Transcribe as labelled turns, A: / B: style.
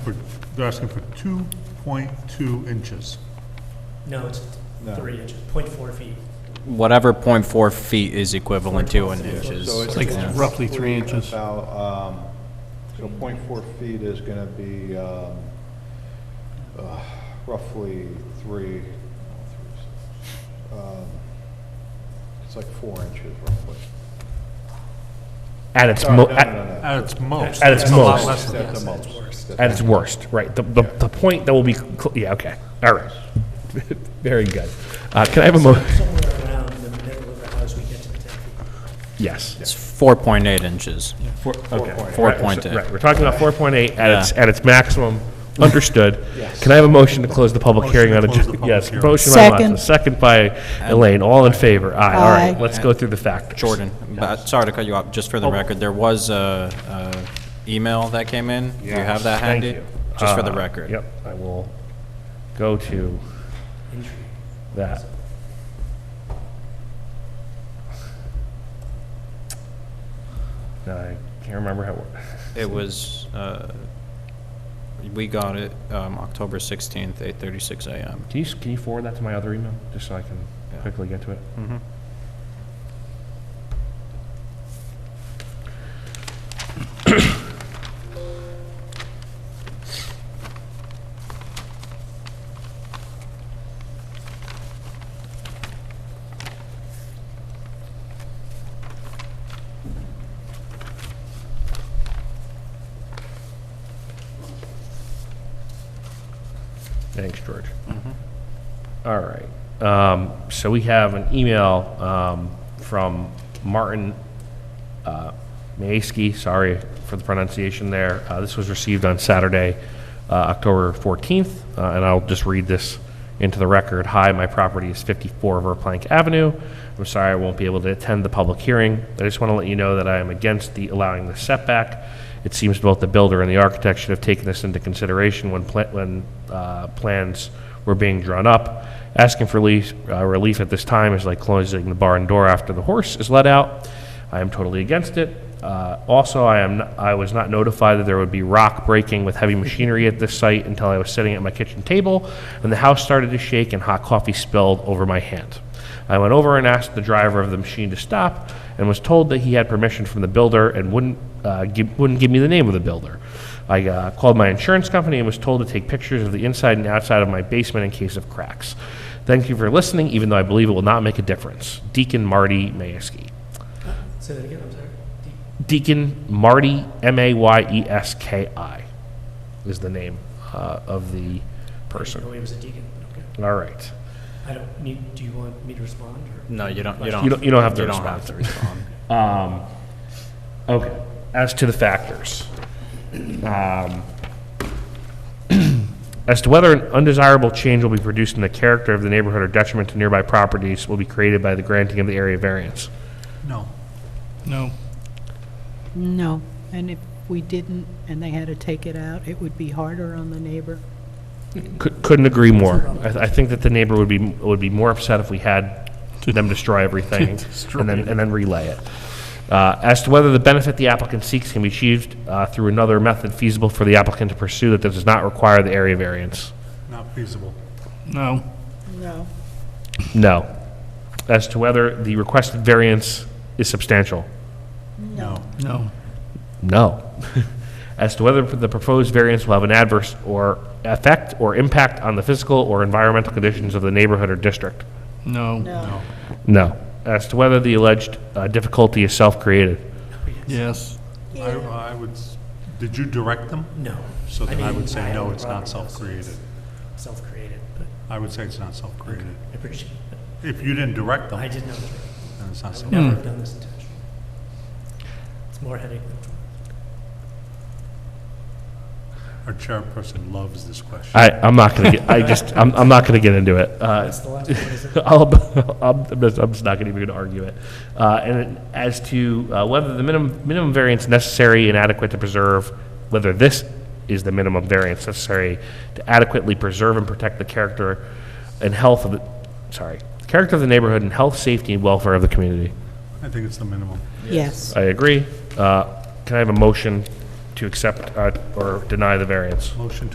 A: for, they're asking for 2.2 inches.
B: No, it's
C: No.
B: three inches, point four feet.
D: Whatever point four feet is equivalent to in inches.
C: So it's
E: like
C: about-
E: roughly three inches.
C: About, um, so point four feet is gonna be, um, uh, roughly three, um, it's like four inches roughly.
E: At its,
C: Sorry,
E: mo-
C: no,
E: at-
C: no, no, no.
A: At its most.
E: At its
B: That's a lot
E: most.
B: less than
C: At the
B: that,
C: most.
B: worse.
C: That's-
E: at its worst, right, the, the, the point that will be, cl- yeah, okay, all right. Very good. Uh, can I have a mo,
B: Somewhere around the middle of the house, we get to the ten feet.
E: yes.
D: It's four point eight inches.
E: Four okay.
D: Four
E: Right, so-
D: point eight.
E: Right, we're talking about four point eight at
D: Yeah.
E: its, at its maximum, understood. Can I have a motion to close the public
A: Motion
E: hearing
A: to
E: on,
A: close the
E: adj-
A: public
E: yes,
A: hearing.
E: motion by Monson,
F: Second.
E: second by Elaine, all in favor, aye, all
F: Aye.
E: right, let's go through the factors.
D: Jordan, but, sorry to cut you off, just for the
E: Oh.
D: record, there was a, a email that came in. Do you have that
E: Thank
D: handy?
E: you.
D: Just for the
E: Uh,
D: record.
E: Yep, I will go to that. Now, I can't remember how, it works.
D: It was, uh, we got it, um, October sixteenth, eight thirty-six AM.
E: can you, s- can you forward that to my other email, just so I can
D: Yeah.
E: quickly get to it? Thanks, George. All right. Um, so we have an email um, from Martin uh, Mayeski. Sorry for the pronunciation there. Uh, this was received on Saturday, uh, October 14th, uh, and I'll just read this into the record. Hi, my property is 54 Verplank Avenue. I'm sorry I won't be able to attend the public hearing. I just want to let you know that I am against the allowing the setback. It seems both the builder and the architect should have taken this into consideration when, pla- when uh, plans were being drawn up. Asking for relief, uh, relief at this time is like closing the barn door after the horse is let out. I am totally against it. Uh, also, I am I was not notified that there would be rock breaking with heavy machinery at this site until I was sitting at my kitchen table, and the house started to shake and hot coffee spilled over my hand. I went over and asked the driver of the machine to stop, and was told that he had permission from the builder and wouldn't uh, give, wouldn't give me the name of the builder. I uh, called my insurance company and was told to take pictures of the inside and outside of my basement in case of cracks. Thank you for listening, even though I believe it will not make a difference. Deacon Marty Mayeski.
B: Say that again, I'm sorry. Deep.
E: Deacon Marty, M A Y E S K I, is the name uh, of the
B: I know
E: person.
B: he was a deacon, but okay.
E: All right.
B: I don't need, do you want me to respond or?
D: No, you don't, you don't.
E: You don't- you don't have to
D: don't have to respond.
E: Um, Okay. As to the factors. um, As to whether an undesirable change will be produced in the character of the neighborhood or detriment to nearby properties will be created by the granting of the area variance.
A: No.
E: No.
F: No, and if we didn't, and they had to take it out, it would be harder on the neighbor.
E: Couldn't agree more. I, th- I think that the neighbor would be, would be more upset if we had them destroy everything and then, and then relay it. Uh, As to whether the benefit the applicant seeks can be achieved uh, through another method feasible for the applicant to pursue that does not require the area variance.
A: Not feasible.
E: No.
F: No.
E: No. As to whether the requested variance is substantial.
A: No.
E: No. As to whether the proposed variance will have an adverse or effect or impact on the physical or environmental conditions of the neighborhood or district.
G: No,
F: No.
E: No. As to whether the alleged uh, difficulty is self-created.
G: yes,
A: I, I would, s- did you direct them?
B: No.
A: So then I
B: mean,
A: would say, no,
B: own
A: it's not
B: property, so it's
A: self-created.
B: Self-created, but
A: I would say it's not self-created.
B: I appreciate it.
A: If you didn't direct them,
B: I
A: then
B: did not,
A: it's not
B: I would
A: self-created.
B: never have done this intentionally. It's more headache than
A: Our chairperson loves this question.
E: I, I'm not gonna get, I just, I'm, I'm not gonna get into it. Uh,
B: That's the last one, is it?
E: I'll, I'm, I'm just I'm just not gonna even gonna argue it. Uh, and as to uh, whether the minimum, minimum variance necessary and adequate to preserve, whether this is the minimum variance necessary to adequately preserve and protect the character and health of the, sorry, character of the neighborhood and health, safety, and welfare of the community.
A: I think it's the minimum.
F: Yes.
E: I agree. Uh, Can I have a motion to accept uh, or deny the variance.
A: Motion